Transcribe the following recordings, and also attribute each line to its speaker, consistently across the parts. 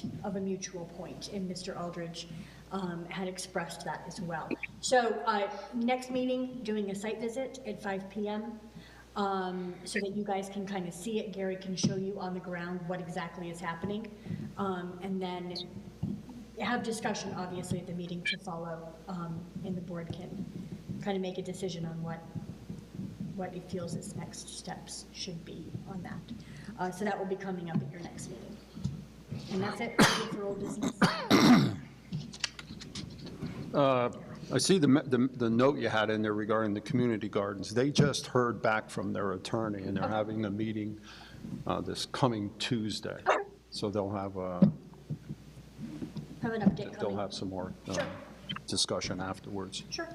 Speaker 1: point of a mutual point, and Mr. Aldridge um, had expressed that as well. So uh, next meeting, doing a site visit at 5 PM, um, so that you guys can kind of see it. Gary can show you on the ground what exactly is happening. Um, And then have discussion, obviously, at the meeting to follow, um, and the board can kind of make a decision on what, what it feels its next steps should be on that. Uh, So that will be coming up at your next meeting. And that's it for old business.
Speaker 2: I see the, me- the, the note you had in there regarding the community gardens. They just heard back from their attorney, and they're having a meeting uh, this coming Tuesday. So they'll have, uh,
Speaker 1: Have an update
Speaker 2: they'll
Speaker 1: coming.
Speaker 2: have some more uh,
Speaker 1: Sure.
Speaker 2: discussion afterwards.
Speaker 1: Sure.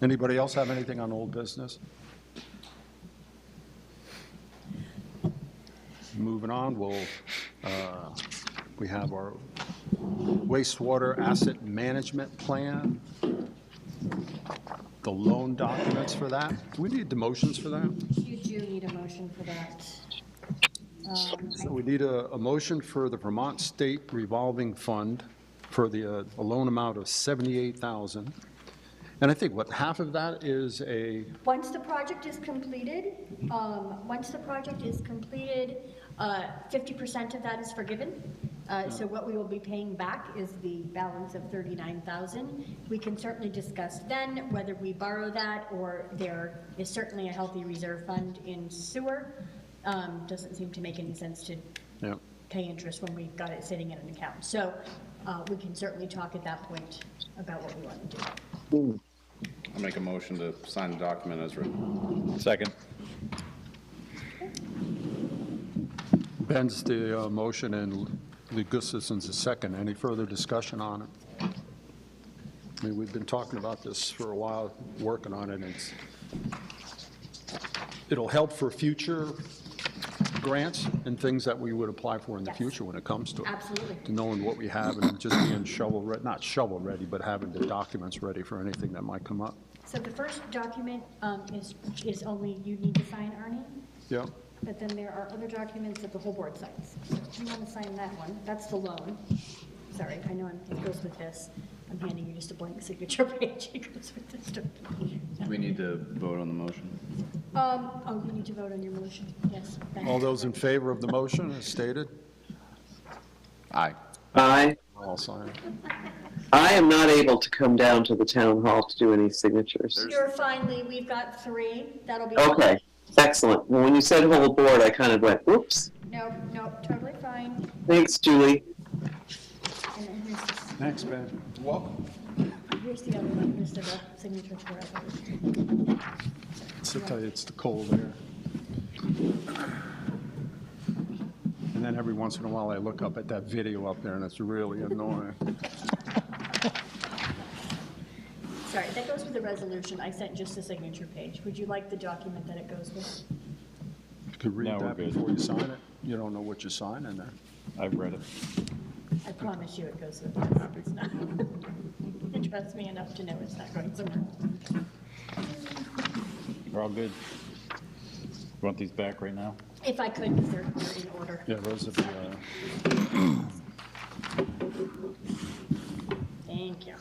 Speaker 2: Anybody else have anything on old business? Moving on, we'll, uh, we have our wastewater asset management plan, the loan documents for that. Do we need the motions for that?
Speaker 1: You do need a motion for that. Um,
Speaker 2: So we need a, a motion for the Vermont State Revolving Fund for the, uh, a loan amount of 78,000. And I think what, half of that is a,
Speaker 1: Once the project is completed, um, once the project is completed, uh, fifty percent of that is forgiven. Uh, So what we will be paying back is the balance of thirty-nine thousand. We can certainly discuss then whether we borrow that, or there is certainly a healthy reserve fund in sewer. Um, Doesn't seem to make any sense to
Speaker 2: yeah.
Speaker 1: pay interest when we've got it sitting in an account. So uh, we can certainly talk at that point about what we want to do.
Speaker 3: I'll make a motion to sign the document as written.
Speaker 4: Second.
Speaker 2: Ben's the uh, motion and Lee Gustafson's the second. Any further discussion on it? I mean, we've been talking about this for a while, working on it, and it's, it'll help for future grants and things that we would apply for in the
Speaker 1: Yes.
Speaker 2: future when it comes to it.
Speaker 1: Absolutely.
Speaker 2: To Knowing what we have and just being shovel-ready, not shovel-ready, but having the documents ready for anything that might come up.
Speaker 1: So the first document um, is, is only you need to sign, Arnie,
Speaker 2: Yeah,
Speaker 1: but then there are other documents that the whole board signs. So if you want to sign that one, that's the loan. Sorry, I know I'm- it goes with this. I'm handing you just a blank signature page. It goes with this document.
Speaker 3: Do we need to vote on the motion?
Speaker 1: Um, oh, you need to vote on your motion, yes. Ben.
Speaker 2: all those in favor of the motion as stated?
Speaker 3: Aye.
Speaker 5: I,
Speaker 2: I'll sign it.
Speaker 5: I am not able to come down to the town hall to do any signatures.
Speaker 1: You're finally, we've got three. That'll be.
Speaker 5: Okay, excellent. Well, when you said whole board, I kind of went, oops.
Speaker 1: Nope, nope, totally fine.
Speaker 5: Thanks, Julie.
Speaker 1: And then here's the,
Speaker 2: Thanks, Ben.
Speaker 3: Welcome.
Speaker 1: here's the other one, here's the signature for it.
Speaker 2: Sit tight, it's the cold air. And then every once in a while, I look up at that video up there, and it's really annoying.
Speaker 1: Sorry, that goes with the resolution. I sent just the signature page. Would you like the document that it goes with?
Speaker 2: You could
Speaker 4: No,
Speaker 2: read
Speaker 4: we're
Speaker 2: that
Speaker 4: good.
Speaker 2: before you sign it. You don't know what you're signing there.
Speaker 4: I've read it.
Speaker 1: I promise you it goes with this. It's not. You trust me enough to know it's not going somewhere. else.
Speaker 4: We're all good. Want these back right now?
Speaker 1: If I could, because they're they're in order.
Speaker 2: Yeah, those are the, uh,
Speaker 1: Thank you.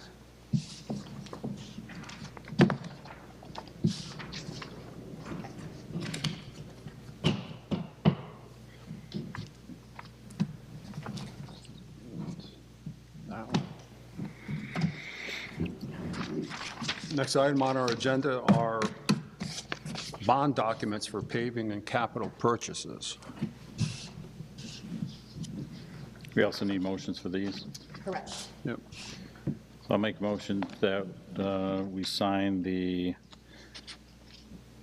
Speaker 2: that one. Next item on our agenda are bond documents for paving and capital purchases.
Speaker 4: We also need motions for these.
Speaker 1: Correct.
Speaker 2: Yep.
Speaker 4: So I'll make a motion that uh, we sign the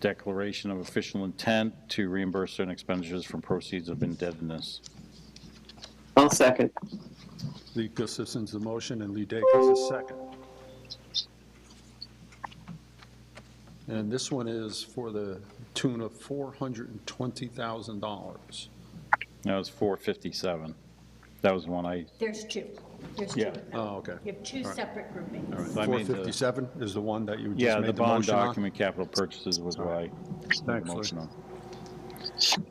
Speaker 4: declaration of official intent to reimburse certain expenditures from proceeds of indebtedness.
Speaker 5: I'll second.
Speaker 2: Lee Gustafson's the motion, and Lee Dacre's the second. And this one is for the tune of $420,000.
Speaker 4: That was 457. That was the one I,
Speaker 1: There's two. There's two.
Speaker 4: Yeah.
Speaker 1: of them.
Speaker 2: Oh, okay.
Speaker 1: You have two separate groupings.
Speaker 4: so I made the,
Speaker 2: 457 is the one that you just
Speaker 4: yeah, the
Speaker 2: made the
Speaker 4: bond
Speaker 2: motion on?
Speaker 4: document capital purchases was why. I made the
Speaker 2: Thanks, Lou.
Speaker 4: motion on.